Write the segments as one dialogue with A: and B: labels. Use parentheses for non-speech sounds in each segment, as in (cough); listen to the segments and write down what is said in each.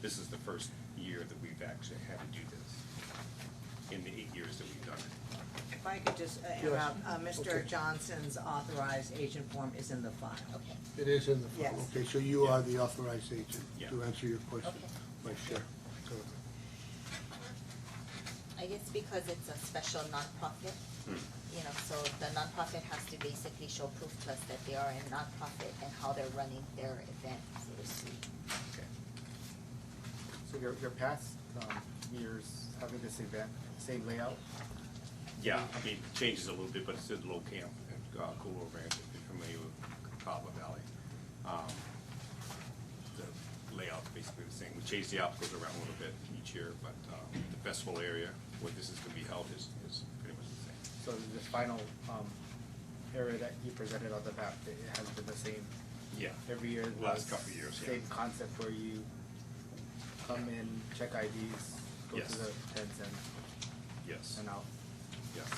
A: This is the first year that we've actually had to do this, in the eight years that we've done it.
B: If I could just uh, interrupt, uh, Mr. Johnson's authorized agent form is in the file. Okay.
C: It is in the file,
B: Yes.
C: okay, so you are the authorized agent
A: Yeah.
C: to answer your question,
D: Okay.
C: my share.
D: I guess because it's a special nonprofit, you know, so the nonprofit has to basically show proof to us that they are a nonprofit and how they're running their event for this week.
A: Okay.
E: So your, your past, um, years having this event, same layout?
A: Yeah, I mean, changes a little bit, but it's at Low Camp, at uh, Cool Ranch, if you're familiar with Cava Valley. Um, The layout's basically the same. We change the obstacles around a little bit each year, but um, the festival area where this is gonna be held is, is pretty much the same.
E: So this final, um, area that you presented on the map, it it has been the same
A: Yeah.
E: every year? it
A: Last
E: was
A: couple of years, yeah.
E: Same concept where you come in, check IDs, go
A: Yes.
E: to the tents and,
A: Yes,
E: and uh, out.
A: yes.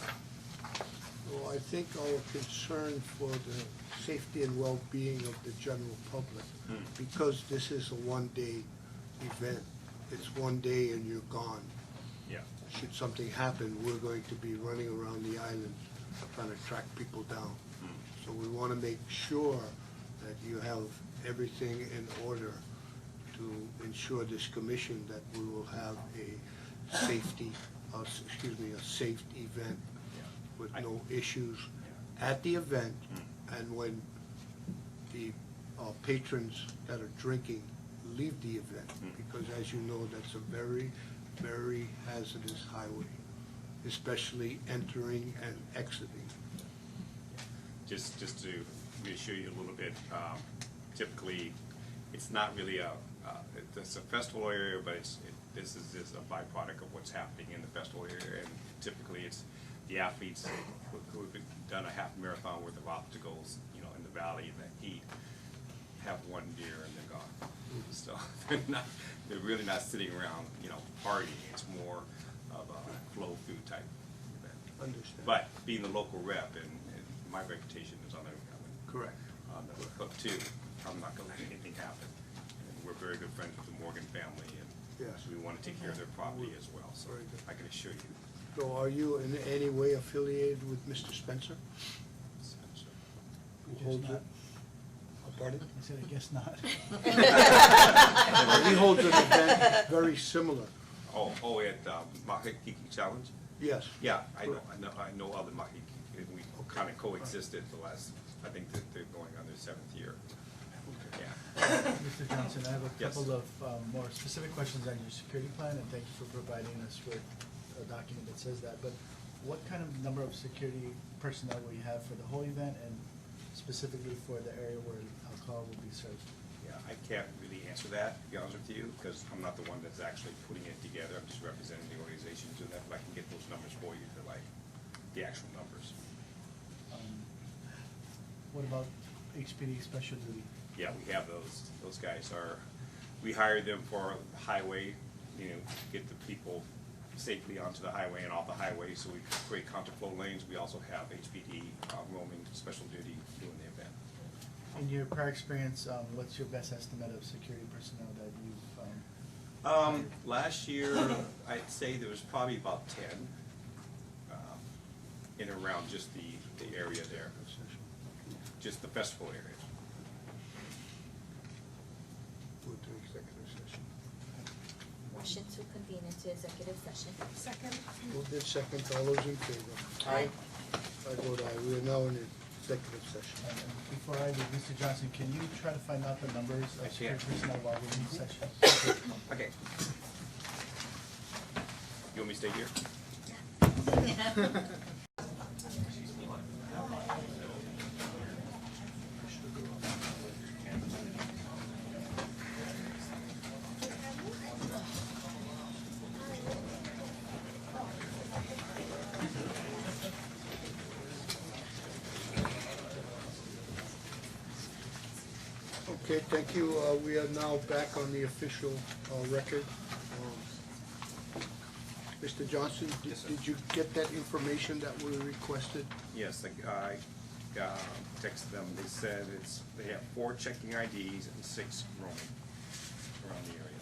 C: Well, I think our concern for the safety and well-being of the general public,
A: Hmm.
C: because this is a one-day event, it's one day and you're gone.
A: Yeah,
C: Should something happen, we're going to be running around the island trying to track people down. So we want to make sure that you have everything in order to ensure this commission that we will have a safety, uh, s- excuse me, a safe event with
A: I-
C: no issues at the event and when the uh, patrons that are drinking leave the event. Because as you know, that's a very, very hazardous highway, especially entering and exiting.
A: just, just to reassure you a little bit, um, typically, it's not really a, uh, it- it's a festival area, but it's, it- this is, is a byproduct of what's happening in the festival area. And typically, it's the athletes who- who have done a half marathon worth of obstacles, you know, in the valley, in the heat, have one deer and they're gone. So (laughs) they're not, they're really not sitting around, you know, partying. It's more of a flow-through type event.
C: Understand?
A: But being the local rep and, and my reputation is on the,
C: Correct.
A: on the hook too, I'm not gonna let anything happen. And we're very good friends with the Morgan family and
C: Yes.
A: we wanna take care of their property as well, so
C: Very good.
A: I can assure you.
C: So are you in any way affiliated with Mr. Spencer?
A: so- so-
C: who holds
F: not.
C: it? Oh, Pardon?
F: I said, I guess not.
C: (laughs) He holds an event very similar,
A: (laughs) Oh, oh, at, um, Mahakiki Challenge?
C: yes.
A: Yeah, I know, I know, I know other Mahakiki, and we kinda coexisted the last, I think that they're going on their seventh year. Yeah,
F: Mr. Johnson, I have a
A: Yes.
F: couple of um, more specific questions on your security plan, and thank you for providing us with a document that says that. But what kind of number of security personnel will you have for the whole event and specifically for the area where alcohol will be served?
A: yeah, I can't really answer that, to be honest with you, because I'm not the one that's actually putting it together, I'm just representing the organization to that, but I can get those numbers for you, they're like, the actual numbers.
F: Um, What about HPD special duty?
A: Yeah, we have those, those guys are, we hired them for highway, you know, get the people safely onto the highway and off the highway, so we create counterflow lanes, we also have HPD uh, roaming special duty doing the event.
F: In your prior experience, um, what's your best estimate of security personnel that you've, um,
A: Um, last year, I'd say there was probably about ten, um, in and around just the, the area there, just the festival area.
C: Go to executive session.
D: Motion to convene into executive session.
G: Second.
C: Moved in second, all those in favor?
E: Aye.
C: I vote aye, we are now in executive session.
F: and- and before I leave, Mr. Johnson, can you try to find out the numbers
A: I
F: of security
A: can't.
F: personnel while we're in session?
A: Okay. You want me to stay here?
C: Okay, thank you, uh, we are now back on the official, uh, record. Um, Mr. Johnson, did-
A: Yes, sir.
C: did you get that information that we requested?
A: Yes, I, I, uh, texted them, they said it's, they have four checking IDs and six roaming around the area.